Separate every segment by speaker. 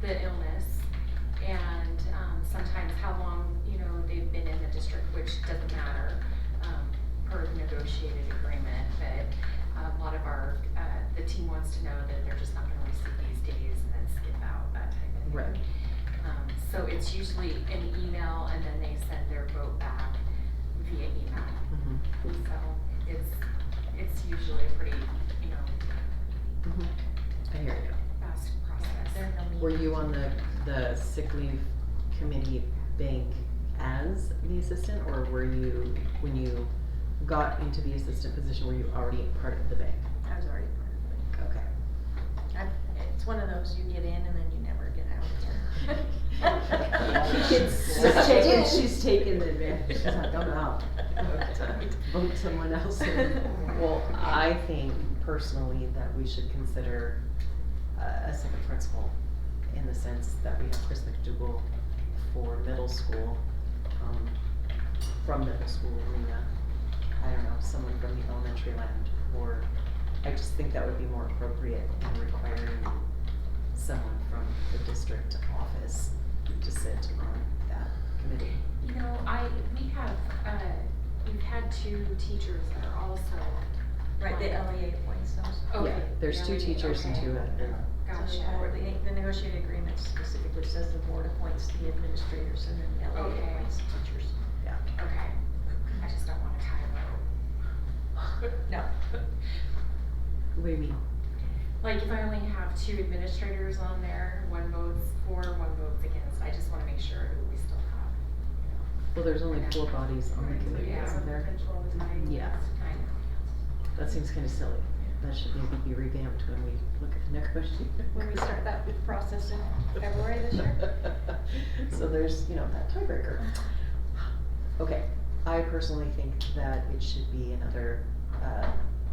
Speaker 1: the illness and, um, sometimes how long, you know, they've been in the district, which doesn't matter, um, per negotiated agreement, but a lot of our, uh, the team wants to know that they're just not gonna receive these days and then skip out, that type of thing.
Speaker 2: Right.
Speaker 1: Um, so it's usually an email and then they send their vote back via email.
Speaker 2: Mhm.
Speaker 1: So it's, it's usually a pretty, you know,
Speaker 2: I hear you.
Speaker 1: fast process.
Speaker 2: Were you on the, the sick leave committee bank as the assistant, or were you, when you got into the assistant position, were you already part of the bank?
Speaker 3: I was already part of
Speaker 2: Okay.
Speaker 3: it. I- It's one of those you get in and then you never get out.
Speaker 2: She's
Speaker 3: Yes, I
Speaker 2: taken,
Speaker 3: did.
Speaker 2: she's taken the advantage, she's like, I'm out.
Speaker 3: That's right.
Speaker 2: Vote someone else in. Well, I think personally that we should consider uh, a, a second principal in the sense that we have Chris McDougal for middle school, um, from middle school, Lena. I don't know, someone from the elementary land, or I just think that would be more appropriate than requiring someone from the district office to sit on that committee.
Speaker 1: You know, I, we have, uh, we've had two teachers that are also.
Speaker 3: Right, the LEA appoints those.
Speaker 2: Yeah,
Speaker 1: Okay,
Speaker 2: there's two
Speaker 1: really?
Speaker 2: teachers and
Speaker 1: Okay.
Speaker 2: two uh, admin.
Speaker 3: So
Speaker 1: Gotcha.
Speaker 3: the board- the- The negotiated agreement specifically says the board appoints the administrators and then the LEA
Speaker 1: Okay.
Speaker 3: appoints the teachers.
Speaker 1: Okay. I just don't want to tie a rope.
Speaker 3: No.
Speaker 2: What do you mean?
Speaker 1: Like if I only have two administrators on there, one votes for, one votes against, I just want to make sure who we still have.
Speaker 2: Well, there's only four bodies on the committee,
Speaker 1: Yeah.
Speaker 2: isn't there? Yeah.
Speaker 1: I know.
Speaker 2: That seems kinda silly. That should maybe be revamped when we look at the negotiation.
Speaker 3: When we start that process in February this year?
Speaker 2: So there's, you know, that tiebreaker. Okay, I personally think that it should be another, uh,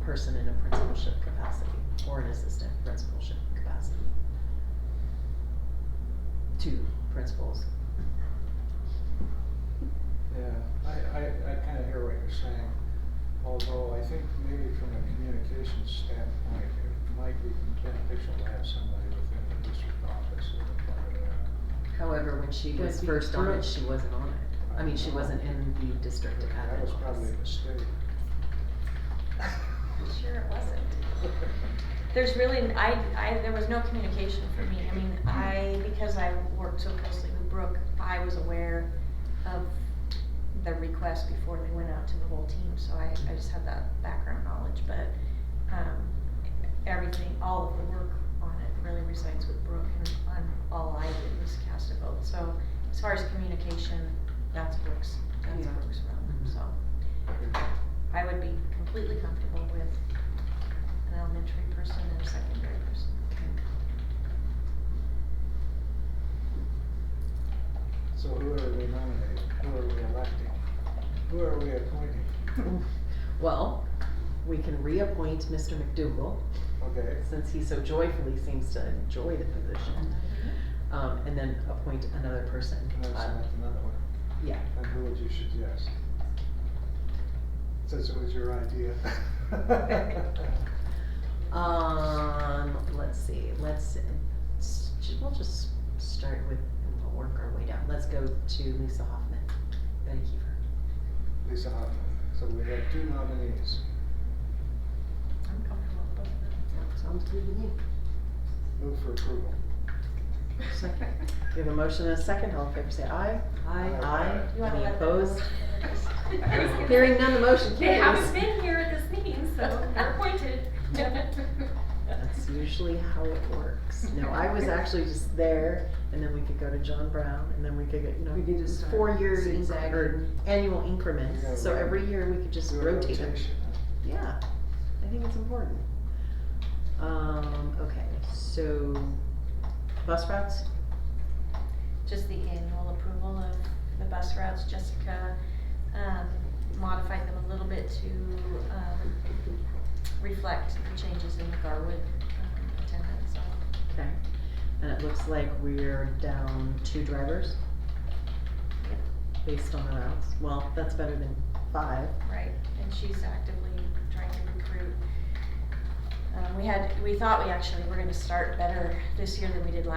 Speaker 2: person in a principalship capacity or an assistant principalship capacity. Two principals.
Speaker 4: Yeah, I, I, I kinda hear what you're saying, although I think maybe from a communications standpoint, it might be beneficial to have somebody within the district office as a part of that.
Speaker 2: However, when she was
Speaker 5: That'd be
Speaker 2: first on it,
Speaker 5: correct.
Speaker 2: she wasn't on it. I mean, she wasn't in the district admin
Speaker 4: That was probably
Speaker 2: office.
Speaker 4: a mistake.
Speaker 3: Sure it wasn't. There's really, I, I, there was no communication for me. I mean, I, because I worked so closely with Brooke, I was aware of the request before they went out to the whole team, so I, I just had that background knowledge, but, um, everything, all of the work on it really resides with Brooke and on all I did was cast a vote, so as far as communication, that's Brooke's, that's
Speaker 2: Yeah.
Speaker 3: Brooke's realm,
Speaker 2: Mhm.
Speaker 3: so. I would be completely comfortable with an elementary person and a secondary person.
Speaker 4: So who are we nominating, who are we electing, who are we appointing,
Speaker 2: Well, we can reappoint Mr. McDougal,
Speaker 4: okay?
Speaker 2: since he so joyfully seems to enjoy the position, um, and then appoint another person.
Speaker 4: And then
Speaker 2: Uh,
Speaker 4: select another one,
Speaker 2: Yeah,
Speaker 4: and who would you suggest? Since it was your idea.
Speaker 2: um, let's see, let's, s- we'll just start with, and we'll work our way down. Let's go to Lisa Hoffman, Betty Kiefer.
Speaker 4: Lisa Hoffman, so we have two nominees.
Speaker 3: I'm comfortable with both of them.
Speaker 2: Sounds good to me.
Speaker 4: Move for approval.
Speaker 2: Second. We have a motion and a second, all in favor say aye.
Speaker 4: Aye.
Speaker 3: You wanna
Speaker 2: Any
Speaker 3: let them
Speaker 2: opposed?
Speaker 1: I was gonna
Speaker 2: Hearing none, the motion
Speaker 1: They haven't
Speaker 2: carries.
Speaker 1: been here at this meeting, so they're appointed.
Speaker 2: That's usually how it works. No, I was actually just there, and then we could go to John Brown, and then we could get, you know,
Speaker 5: We could just
Speaker 2: it's
Speaker 5: start
Speaker 2: four-year
Speaker 5: zigzagging.
Speaker 2: incre- or annual
Speaker 4: Yeah,
Speaker 2: increments, so
Speaker 4: right.
Speaker 2: every year we could just
Speaker 4: Do a
Speaker 2: rotate them.
Speaker 4: rotation, huh?
Speaker 2: Yeah, I think it's important. Um, okay, so bus routes?
Speaker 3: Just the annual approval of the bus routes, Jessica, um, modified them a little bit to, um, reflect the changes in the Garwood, um, attendance, so.
Speaker 2: Okay. And it looks like we're down two drivers based on the routes. Well, that's better than five.
Speaker 3: Right, and she's actively trying to recruit. Um, we had, we thought we actually were gonna start better this year than we did last